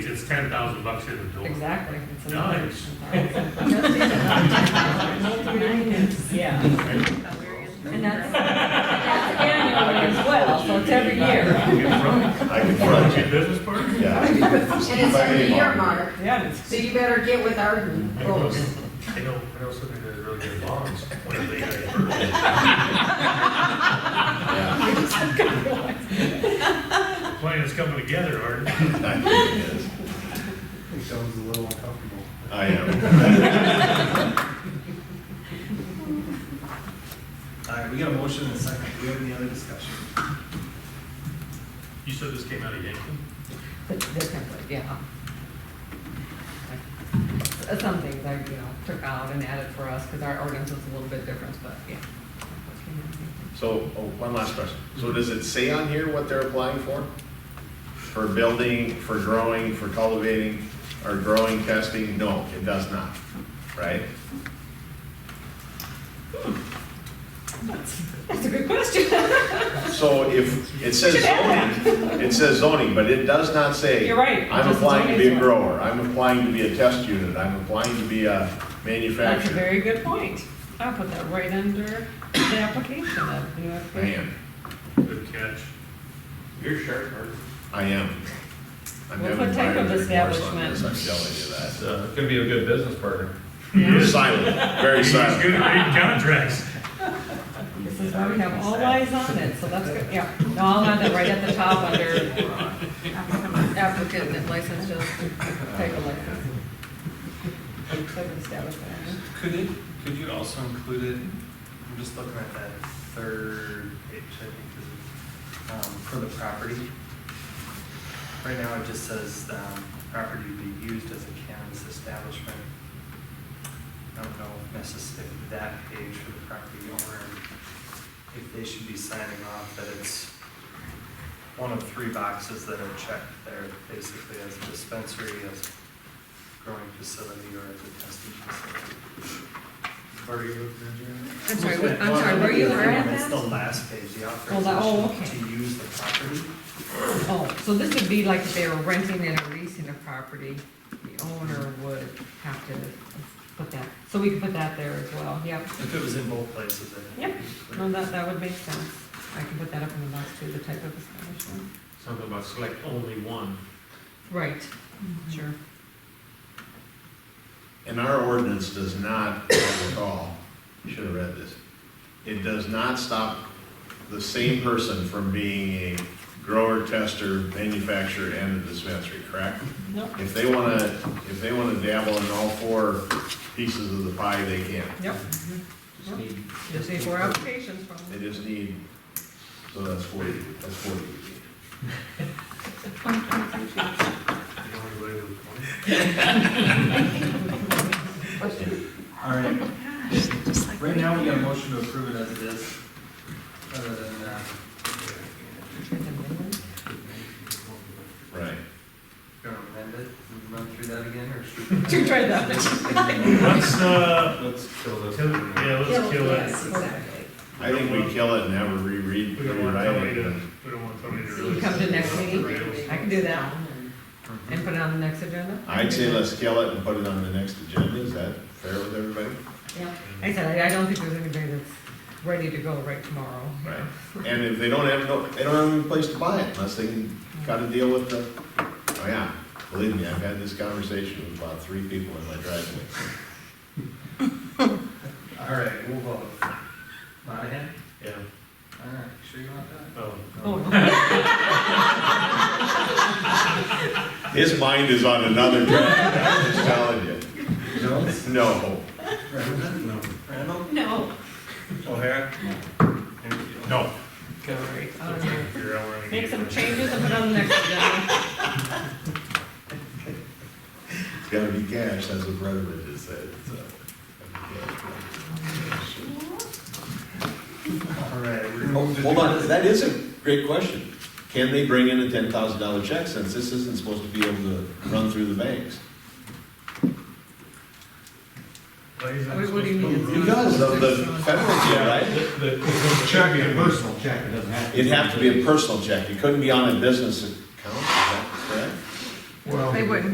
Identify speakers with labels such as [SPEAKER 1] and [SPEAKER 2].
[SPEAKER 1] ten thousand bucks in the door.
[SPEAKER 2] Exactly. It's an
[SPEAKER 1] Nice.
[SPEAKER 2] investment. Yeah, and that's, that's annually as well, so it's every year.
[SPEAKER 1] I
[SPEAKER 3] I can front you.
[SPEAKER 1] business partner?
[SPEAKER 3] Yeah. I can front you.
[SPEAKER 4] And it's
[SPEAKER 3] My
[SPEAKER 4] a
[SPEAKER 3] name on
[SPEAKER 4] year
[SPEAKER 3] it.
[SPEAKER 4] mark,
[SPEAKER 2] Yeah, it's.
[SPEAKER 4] so you better get with Arden
[SPEAKER 1] I know,
[SPEAKER 4] folks.
[SPEAKER 1] I know I know somebody that really good bonds, when they get it.
[SPEAKER 3] Yeah,
[SPEAKER 1] The plan is uh, coming together, Art.
[SPEAKER 3] I think it is.
[SPEAKER 5] think that was a little uncomfortable.
[SPEAKER 3] I am.
[SPEAKER 6] All right, we got a motion and a second. Do we have any other discussion?
[SPEAKER 1] You said this came out of Yankton?
[SPEAKER 2] But different, but yeah. Uh, Some things I, you know, took out and added for us, because our ordinance was a little bit different, but yeah.
[SPEAKER 3] So, oh, one last question. So does it say on here what they're applying for? For building, for growing, for cultivating, or growing, testing? No, it does not, right?
[SPEAKER 2] That's a good question.
[SPEAKER 3] So if, it says
[SPEAKER 2] Should add
[SPEAKER 3] zoning, it says zoning, but it does not say.
[SPEAKER 2] You're right. It
[SPEAKER 3] I'm
[SPEAKER 2] just
[SPEAKER 3] applying to be a
[SPEAKER 2] zoning.
[SPEAKER 3] grower, I'm applying to be a test unit, I'm applying to be a
[SPEAKER 2] That's a
[SPEAKER 3] manufacturer.
[SPEAKER 2] very good point. I'll put that right under the application of new application.
[SPEAKER 3] Man,
[SPEAKER 1] Good catch.
[SPEAKER 7] You're sharp, Art.
[SPEAKER 3] I am. I'm
[SPEAKER 2] Well,
[SPEAKER 3] having
[SPEAKER 2] what type of
[SPEAKER 3] buyer's remorse on this, I'm
[SPEAKER 2] establishment?
[SPEAKER 3] telling you that.
[SPEAKER 7] It's uh, gonna be a good business partner.
[SPEAKER 3] Silent, very
[SPEAKER 1] He's
[SPEAKER 3] silent.
[SPEAKER 1] good at reading contracts.
[SPEAKER 2] This is why we have all eyes on it, so that's good, yeah. No, I'll add that right at the top under applicant and license, just take a license. Type of establishment.
[SPEAKER 6] Could it, could you also include it, I'm just looking at that third page, I think, is, um, for the property. Right now, it just says, um, property to be used as a cannabis establishment. I don't know if necessarily that page for the property owner, if they should be signing off that it's one of three boxes that are checked there, basically as a dispensary, as a growing facility, or as a testing facility.
[SPEAKER 5] Are you looking at your?
[SPEAKER 2] I'm sorry, what- I'm sorry, where you were at
[SPEAKER 6] It's the
[SPEAKER 2] that?
[SPEAKER 6] last page, the
[SPEAKER 2] Oh, that- oh,
[SPEAKER 6] authorization to use the property.
[SPEAKER 2] Oh, so this would be like if they were renting and or leasing a property, the owner would have to put that, so we can put that there as well, yep.
[SPEAKER 6] If it was in both places, then.
[SPEAKER 2] Yep. No, that, that would make sense. I can put that up in the last two, the type of establishment.
[SPEAKER 7] Something about select only one.
[SPEAKER 2] Right, sure.
[SPEAKER 3] And our ordinance does not, I recall, you should have read this, it does not stop the same person from being a grower, tester, manufacturer, and a dispensary, correct?
[SPEAKER 2] Nope.
[SPEAKER 3] If they wanna, if they wanna dabble in all four pieces of the pie, they can.
[SPEAKER 2] Yep.
[SPEAKER 7] Just need.
[SPEAKER 2] Just need four applications from
[SPEAKER 3] They just need, so that's forty, that's forty.
[SPEAKER 1] The only way to appoint.
[SPEAKER 6] All right. Right now, we got a motion to approve it as it is, other than, uh,
[SPEAKER 3] Right.
[SPEAKER 6] gonna amend it, and run through that again, or should?
[SPEAKER 2] To try that.
[SPEAKER 1] Let's, uh,
[SPEAKER 7] Let's kill this.
[SPEAKER 1] kill- yeah, let's kill
[SPEAKER 4] Yes,
[SPEAKER 1] it.
[SPEAKER 4] exactly.
[SPEAKER 3] I think we kill it and have a reread.
[SPEAKER 1] We don't want
[SPEAKER 3] rewrite
[SPEAKER 1] somebody
[SPEAKER 3] it.
[SPEAKER 1] to, we don't want somebody to
[SPEAKER 2] So you
[SPEAKER 1] really.
[SPEAKER 2] come to next meeting?
[SPEAKER 1] Rails.
[SPEAKER 2] I can do that and put it on the next agenda.
[SPEAKER 3] I'd say let's kill it and put it on the next agenda, is that fair with everybody?
[SPEAKER 2] Yeah, I said, I I don't think there's anybody that's ready to go right tomorrow.
[SPEAKER 3] Right. And if they don't have, no, they don't have any place to buy it unless they can cut a deal with the, oh yeah, believe me, I've had this conversation with about three people in my driveway.
[SPEAKER 6] All right, we'll vote. Monahan?
[SPEAKER 1] Yeah.
[SPEAKER 6] All right, sure you want that?
[SPEAKER 1] Oh,
[SPEAKER 2] Oh, no.
[SPEAKER 3] His mind is on another track, I'm just telling you.
[SPEAKER 6] Jones?
[SPEAKER 3] No,
[SPEAKER 6] Randall? No. Randall?
[SPEAKER 4] No.
[SPEAKER 6] O'Hara?
[SPEAKER 1] no.
[SPEAKER 2] Go right. All right.
[SPEAKER 1] Figure out where I'm gonna
[SPEAKER 2] Make
[SPEAKER 1] get
[SPEAKER 2] some
[SPEAKER 1] it.
[SPEAKER 2] changes and put it on the next agenda.
[SPEAKER 3] it's gotta be cash, that's what Brenneman just said, so.
[SPEAKER 6] All right, we're going
[SPEAKER 5] Oh,
[SPEAKER 6] to.
[SPEAKER 3] Hold on, that is a great question. Can they bring in a ten thousand dollar check since this isn't supposed to be able to run through the banks?
[SPEAKER 1] Why is that
[SPEAKER 2] What- what do you
[SPEAKER 1] supposed
[SPEAKER 2] mean
[SPEAKER 1] to-
[SPEAKER 2] it's
[SPEAKER 3] Because of the federal, yeah, right?
[SPEAKER 5] Check, a personal check, it doesn't have to.
[SPEAKER 3] It'd have to be a personal check, it couldn't be on a business account, is that correct?
[SPEAKER 2] They wouldn't